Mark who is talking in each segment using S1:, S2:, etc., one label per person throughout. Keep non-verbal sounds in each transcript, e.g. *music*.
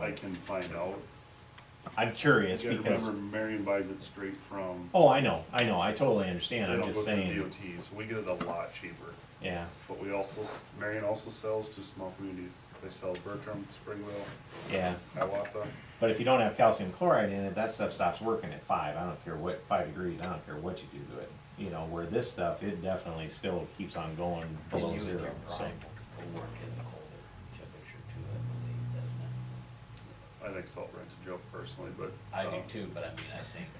S1: I can find out.
S2: I'm
S1: You
S2: curious
S1: gotta
S2: because,
S1: remember, Marion buys it straight from,
S2: oh, I know, I know, I totally
S1: they
S2: understand,
S1: don't
S2: I'm
S1: go
S2: just
S1: through
S2: saying,
S1: DOT, so we get it a lot cheaper.
S2: yeah,
S1: But we also, Marion also sells to small communities, they sell Bertram, Springwell,
S2: yeah.
S1: Hiawatha.
S2: But if you don't have calcium chloride in it, that stuff stops working at five, I don't care what, five degrees, I don't care what you do to it. You know, where this stuff, it definitely still keeps on going
S3: And you
S2: below
S3: with your
S2: zero, so.
S3: prime will work in the colder temperature too, I believe, doesn't it?
S1: I think Salt Brine's a joke personally, but.
S3: I
S1: uh,
S3: do too, but I mean, I think,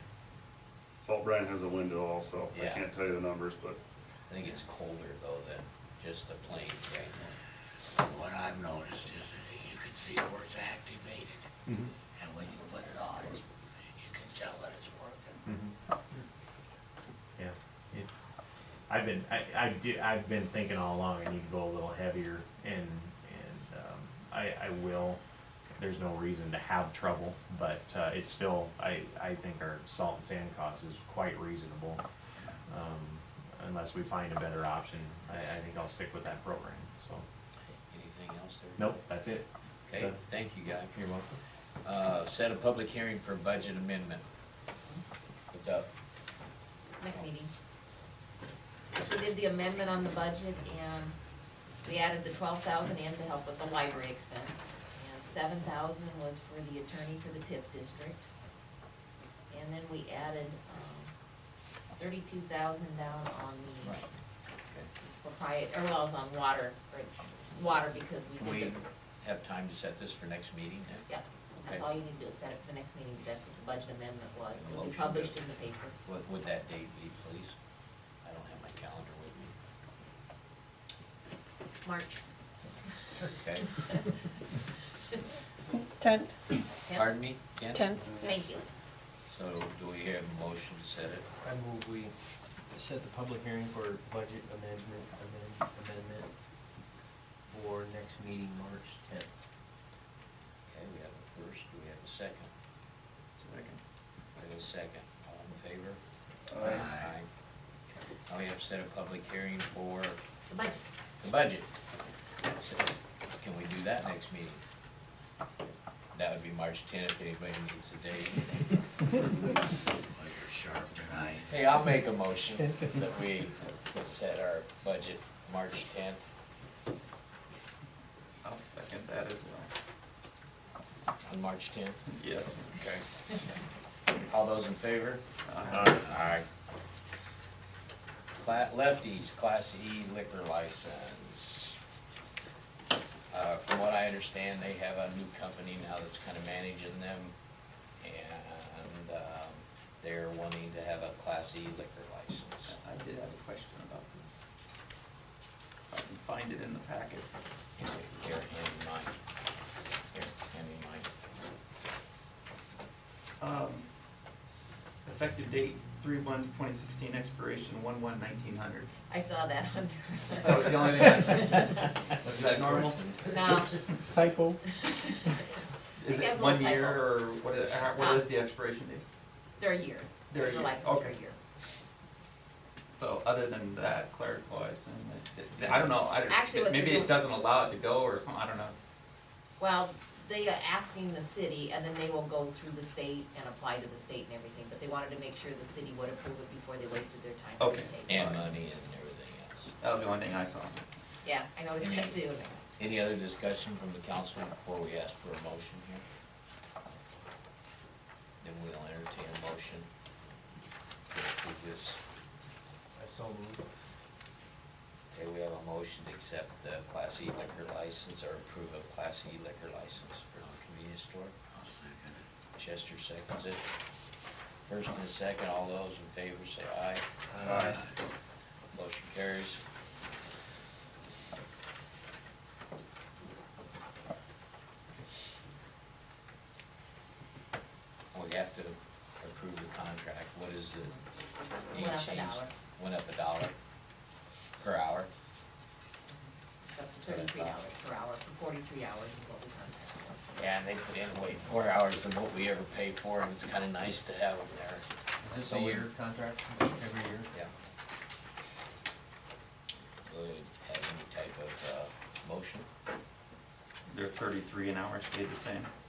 S1: Salt Brine has a window also, I
S3: Yeah.
S1: can't tell you the numbers, but
S3: I think it's colder though than just the plain grain.
S4: What I've noticed is that you can see where it's activated,
S2: Mhm,
S4: and when you put it on, it's, you can tell that it's working.
S2: mhm. Yeah, it- I've been, I, I do, I've been thinking all along, I need to go a little heavier and, and, um, I, I will. There's no reason to have trouble, but, uh, it's still, I, I think our salt and sand cost is quite reasonable. Um, unless we find a better option, I, I think I'll stick with that program, so,
S3: Anything else there?
S2: nope, that's it.
S3: Okay, thank you, guy.
S2: You're welcome.
S3: Uh, set a public hearing for budget amendment. What's up?
S5: next meeting. So we did the amendment on the budget and we added the twelve thousand in to help with the library expense. And seven thousand was for the attorney for the TIF district. And then we added, um, thirty-two thousand down on the
S3: Right. Okay.
S5: propriet, or well, it's on water, or water because
S3: Can
S5: we
S3: we
S5: did the,
S3: have time to set this for next meeting then?
S5: yeah. That's
S3: Okay.
S5: all you need to do is set it for the next meeting, because that's what the budget amendment was. It'll
S3: Motion
S5: be
S3: to-
S5: published in the paper.
S3: What would that date be, please? I don't have my calendar with me.
S5: March
S3: Okay,
S6: Tenth,
S5: tenth.
S3: pardon me, Ken?
S6: tenth.
S5: Thank you.
S3: So do we have a motion to set it?
S7: I move we set the public hearing for budget amendment, amend- amendment for next meeting, March tenth.
S3: Okay, we have a first, do we have a second? Second. We have a second, all in favor? Aye. Now we have set a public hearing for
S5: The budget.
S3: the budget. So, Can we do that next meeting? That would be March tenth, if anybody needs a date.
S4: Well, you're sharp tonight.
S3: Hey, I'll make a motion that we set our budget March tenth.
S8: I'll second that as well.
S3: On March tenth?
S8: Yes.
S3: Okay. All those in favor? Aye. Cla- Lefties, Class E liquor license. Uh, from what I understand, they have a new company now that's kind of managing them, and, um, they're wanting to have a Class E liquor license.
S8: I did have a question about this. If I can find it in the packet.
S3: Here, here, hand me mine. Here, hand me mine.
S8: Um, Effective date, three one twenty sixteen, expiration one one nineteen hundred.
S7: *laughs*
S5: I saw that on
S8: That was the only thing
S5: *laughs*
S8: I, was that normal?
S5: there. No,
S2: Typo.
S8: Is
S5: It
S8: it
S5: has a
S8: one
S5: little
S8: year
S5: typo.
S8: or what is, uh,
S5: Ah.
S8: what is the expiration date?
S5: *laughs* they're a year.
S8: They're a year,
S5: licensed for a
S8: okay.
S5: year.
S8: So other than that, clerical license, it- it- I don't know, I
S5: Actually,
S8: don't,
S5: what
S8: maybe
S5: they're
S8: it
S5: doing-
S8: doesn't allow it to go or something, I don't know.
S5: Well, they are asking the city, and then they will go through the state and apply to the state and everything, but they wanted to make sure the city would approve it before they wasted their time to the
S8: Okay.
S5: state.
S3: And uh, money and everything else.
S8: That was the only thing I saw.
S5: Yeah, I noticed that too.
S3: Any other discussion from the council before we ask for a motion here? Then we'll entertain a motion to approve this.
S7: I so moved.
S3: Okay, we have a motion to accept the Class E liquor license or approve a Class E liquor license for the convenience store.
S4: I'll second it.
S3: Chester seconds it. First and second, all those in favor say aye. Motion carries. We have to approve the contract, what is it?
S5: Went up a
S3: Change-
S5: dollar.
S3: Went up a dollar per hour,
S5: It's up to thirty-three dollars per hour, for forty-three hours is what we contracted. for.
S3: yeah, and they put in way more hours than what we ever pay for, and it's kinda nice to have them there.
S7: Is this
S3: So
S7: a
S3: we-
S7: year contract, every year?
S3: Yeah. Would have any type of, uh, motion?
S8: They're thirty-three an hour, stayed the same.